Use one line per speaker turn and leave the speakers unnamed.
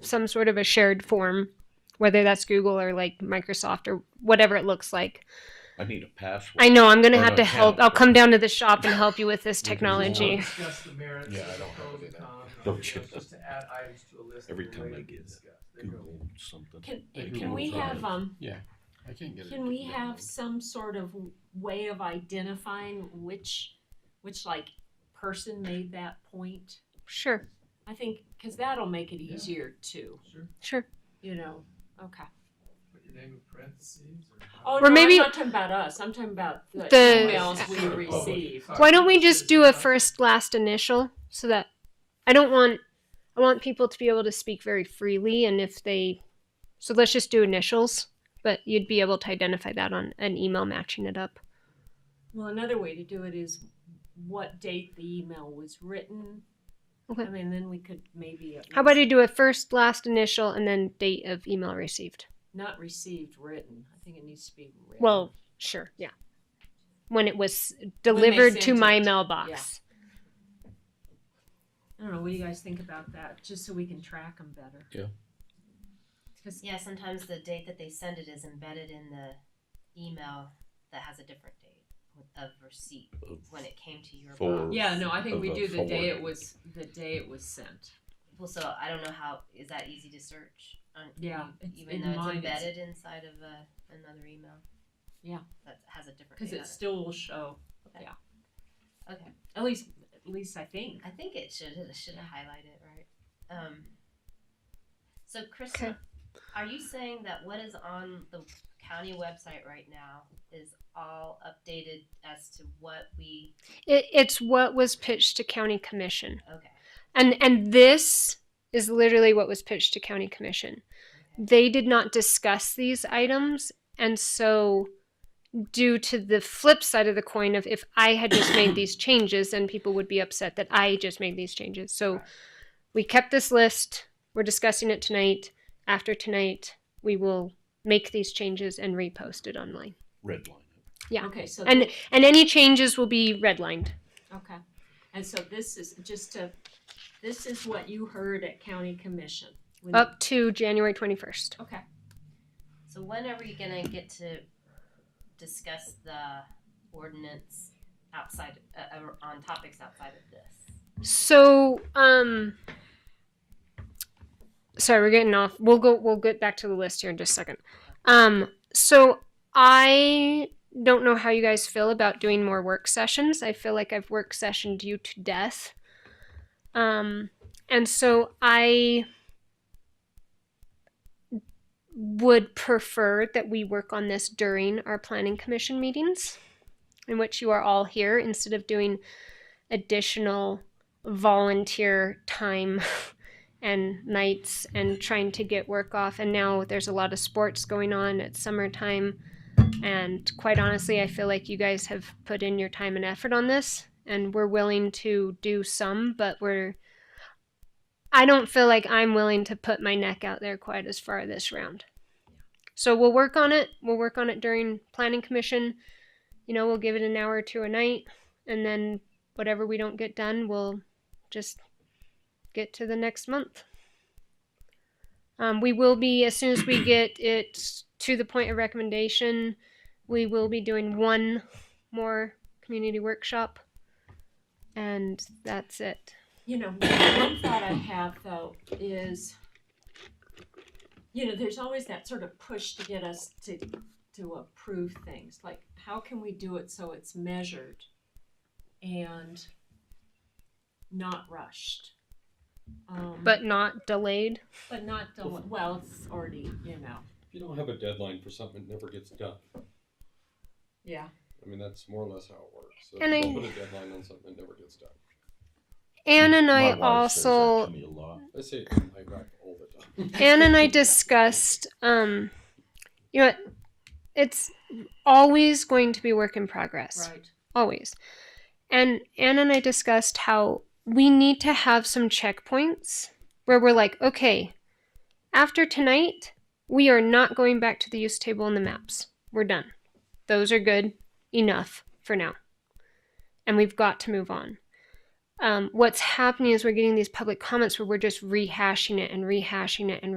some sort of a shared form, whether that's Google or like Microsoft or whatever it looks like.
I need a password.
I know I'm gonna
Or
have
an
to help.
account.
I'll come down to the shop and help you with this
can
technology.
Discuss the merits.
Yeah, I
the
don't have
pros
it
and
in.
cons,
Don't
and
you?
Just to add items to a list.
Every
that
time
we're ready
I
to
get
discuss. There you go.
Google something.
Can,
It
can we
goes on.
have, um,
I can't get it.
can we have some sort of way of identifying which, which like person made that point?
Sure,
I think, cause that'll make it easier too,
Sure,
sure.
you know, okay.
put your name in parentheses or.
Oh,
Or
no, I'm
maybe-
not talking about us, I'm talking about the
The-
emails we
Oh.
receive.
Why don't we just do a first last initial so that I don't want I want people to be able to speak very freely and if they so let's just do initials, but you'd be able to identify that on an email matching it up.
Well, another way to do it is what date the email was written. I
Okay.
mean, then we could maybe. at
How about
least-
you do a first last initial and then date of email received?
Not received, written. I think it needs to be written.
Well, sure, yeah. When it was
they
delivered to
sent
my
it,
mailbox.
I don't know. What do you guys think about that? Just so we can track them better.
Yeah.
Because
Yeah, sometimes the date that they send it is embedded in the email that has a different date of receipt when it came to your
For-
box.
yeah, no, I think we
Of a
do the day it
forward.
was the day it was sent.
Well, so I don't know how is that easy to search? On,
Yeah,
e-
it's-
even
in
though it's
mine it's-
embedded inside of a, another email.
Yeah.
that has a different.
Because
Date
it still will show.
Okay.
Yeah.
on it. Okay,
At least, at least I think.
I think it should it should highlight it right. Um, so, Chris, are you saying that what is on the county website right now is all updated as to what we?
It, it's what was pitched to county commission.
Okay.
and and this is literally what was pitched to county commission they did not discuss these items and so due to the flip side of the coin of if i had just made these changes then people would be upset that i just made these changes so we kept this list we're discussing it tonight after tonight we will make these changes and repost it online
Red line.
Yeah.
Okay. So
and and any changes will be redlined
Okay, and so this is just to, this is what you heard at county commission. when-
up to january 21st
Okay,
So when are we gonna get to discuss the ordinance outside, uh, uh, on topics outside of this?
So, um, sorry, we're getting off. We'll go. We'll get back to the list here in just a second. Um, so I don't know how you guys feel about doing more work sessions. I feel like I've work sessioned you to death. Um, and so I would prefer that we work on this during our planning commission meetings, in which you are all here instead of doing additional volunteer time and nights and trying to get work off. And now there's a lot of sports going on at summertime. And quite honestly, I feel like you guys have put in your time and effort on this. And we're willing to do some, but we're. I don't feel like I'm willing to put my neck out there quite as far this round. So we'll work on it. We'll work on it during planning commission. You know, we'll give it an hour or two a night. And then whatever we don't get done, we'll just get to the next month. Um, we will be, as soon as we get it to the point of recommendation, we will be doing one more community workshop. And that's it.
you know, one thought I have though is, you know, there's always that sort of push to get us to, to approve things, like how can we do it so it's measured and not rushed? Um,
But not delayed.
But not, del- well, it's already, you know,
If you don't have a deadline for something, it never gets done.
yeah.
I mean, that's more or less how it works. So
And
if
I-
you don't put a deadline on something, it never gets done.
Anne and
My
I
wife says that to
also,
me a lot.
I say it to my wife all the time.
Anne and I discussed, um, you know, it's always going to be work in progress.
Right.
always. And Anna and I discussed how we need to have some checkpoints where we're like, okay, after tonight, we are not going back to the use table and the maps. We're done. Those are good enough for now. And we've got to move on. um, what's happening is we're getting these public comments where we're just rehashing it and rehashing it and